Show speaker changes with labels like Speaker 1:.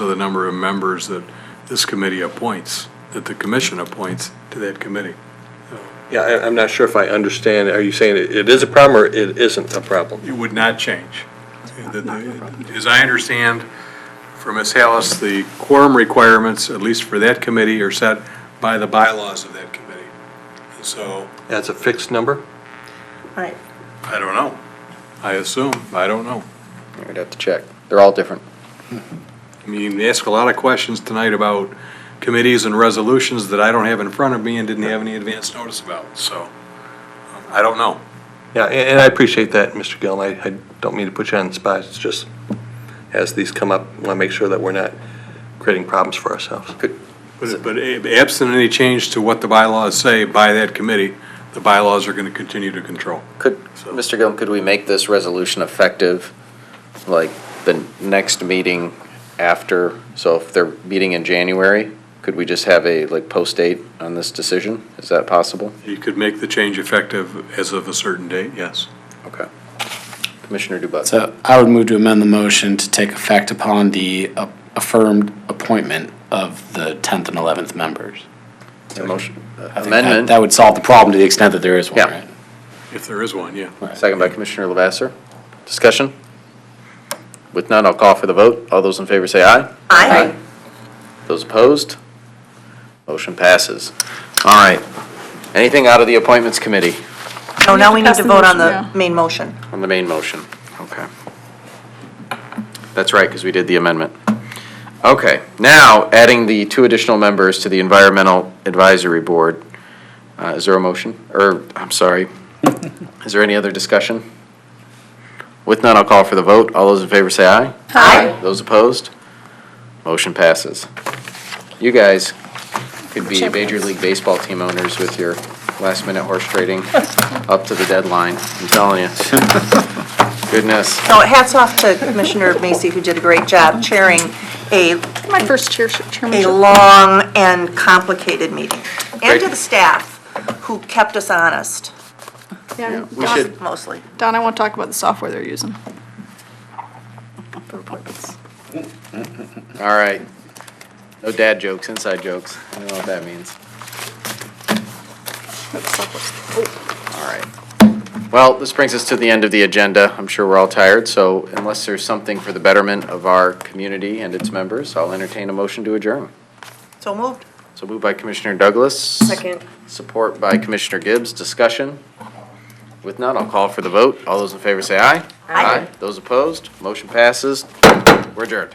Speaker 1: the number of members that this committee appoints, that the commission appoints to that committee.
Speaker 2: Yeah, I, I'm not sure if I understand. Are you saying it it is a problem or it isn't a problem?
Speaker 1: It would not change. The- the- As I understand from Ms. Hallis, the quorum requirements, at least for that committee, are set by the bylaws of that committee. And so,
Speaker 2: That's a fixed number?
Speaker 3: Right.
Speaker 1: I don't know. I assume, I don't know.
Speaker 4: We'd have to check. They're all different.
Speaker 1: I mean, you ask a lot of questions tonight about committees and resolutions that I don't have in front of me and didn't have any advance notice about, so um, I don't know.
Speaker 2: Yeah, a- and I appreciate that, Mr. Gill, and I, I don't mean to put you on the spot. It's just, as these come up, I want to make sure that we're not creating problems for ourselves.
Speaker 1: But but absent any change to what the bylaws say by that committee, the bylaws are going to continue to control.
Speaker 4: Could,
Speaker 1: So-
Speaker 4: Mr. Gillum, could we make this resolution effective, like, the next meeting after? So if they're meeting in January, could we just have a, like, post date on this decision? Is that possible?
Speaker 1: You could make the change effective as of a certain date, yes.
Speaker 4: Okay. Commissioner Dubus?
Speaker 5: So I would move to amend the motion to take effect upon the a- affirmed appointment of the 10th and 11th members.
Speaker 4: A motion,
Speaker 5: I think that-
Speaker 4: amendment?
Speaker 5: That would solve the problem to the extent that there is one,
Speaker 4: Yeah.
Speaker 5: right?
Speaker 1: If there is one, yeah.
Speaker 4: Second by Commissioner Lavasser. Discussion? With none, I'll call for the vote. All those in favor say aye.
Speaker 3: Aye.
Speaker 4: Those opposed? Motion passes. All right. Anything out of the Appointments Committee
Speaker 3: No, Oh, now we need to vote on the
Speaker 6: Yeah.
Speaker 3: main motion.
Speaker 4: on the main motion? Okay. That's right, because we did the amendment. Okay, now adding the two additional members to the Environmental Advisory Board. Uh, Is there a motion? Or, I'm sorry, is there any other discussion? With none, I'll call for the vote. All those in favor say aye.
Speaker 3: Aye.
Speaker 4: Those opposed? Motion passes. You guys could be Major League Baseball team owners with your last-minute horse trading up to the deadline. I'm telling you. Goodness.
Speaker 3: So hats off to Commissioner Macy, who did a great job chairing a,
Speaker 6: My first chair,
Speaker 3: a
Speaker 6: chairmanship.
Speaker 3: long and complicated meeting. And
Speaker 4: Great.
Speaker 3: to the staff, who kept us honest,
Speaker 6: Yeah,
Speaker 4: we
Speaker 6: Don-
Speaker 4: should-
Speaker 3: mostly.
Speaker 6: Don, I want to talk about the software they're using. For appointments.
Speaker 4: All right. No dad jokes, inside jokes. I don't know what that means.
Speaker 6: That's software.
Speaker 4: All right. Well, this brings us to the end of the agenda. I'm sure we're all tired, so unless there's something for the betterment of our community and its members, I'll entertain a motion to adjourn.
Speaker 3: So moved.
Speaker 4: So moved by Commissioner Douglas. Second. Support by Commissioner Gibbs. Discussion? With none, I'll call for the vote. All those in favor say aye.
Speaker 3: Aye.
Speaker 4: Those opposed? Motion passes. We're adjourned.